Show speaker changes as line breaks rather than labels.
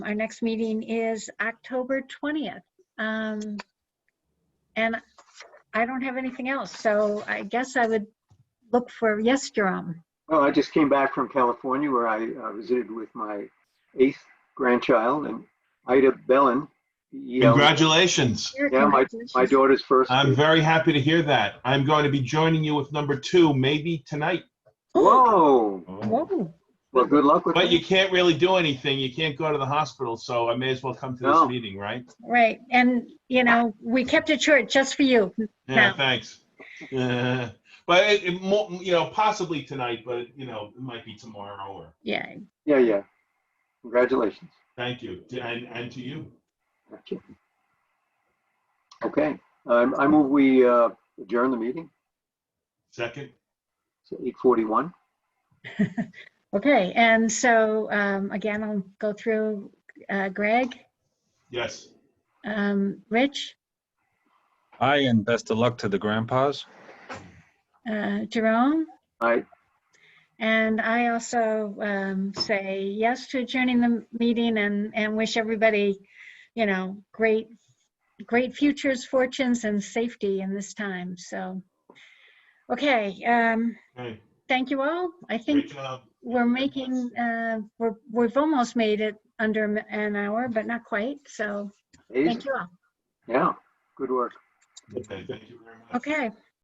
Our next meeting is October 20th. Um, And I don't have anything else, so I guess I would look for, yes, Jerome?
Well, I just came back from California where I uh, visited with my eighth grandchild and Ida Bellin. B E L L I N.
Congratulations.
Yeah, my, my daughter's first.
I'm very happy to hear that. I'm going to be joining you with number two, maybe tonight.
Whoa.
Oh, Whoa,
Well, good luck with
But you
that.
can't really do anything. You can't go to the hospital, so I may as well come to this
No.
meeting, right?
right, and, you know, we kept it short just for you.
Yeah,
No.
thanks. Uh, But it, it mo- you know, possibly tonight, but you know, it might be tomorrow or,
Yeah,
Yeah, yeah. Congratulations.
thank you, and, and to you.
Okay. Um, I move we uh, adjourn the meeting.
Second,
It's 8:41.
okay, and so um, again, I'll go through uh, Greg,
yes.
um, Rich,
Hi, and best of luck to the grandpas.
uh, Jerome,
I,
and I also um, say yes to adjourning the meeting and, and wish everybody, you know, great, great futures, fortunes, and safety in this time, so. Okay, um,
Hey,
thank you all. I
great
think
job.
we're making, uh, we're, we've almost made it under an hour, but not quite, so thank you all.
yeah, good work.
Okay, thank you very much.
Okay,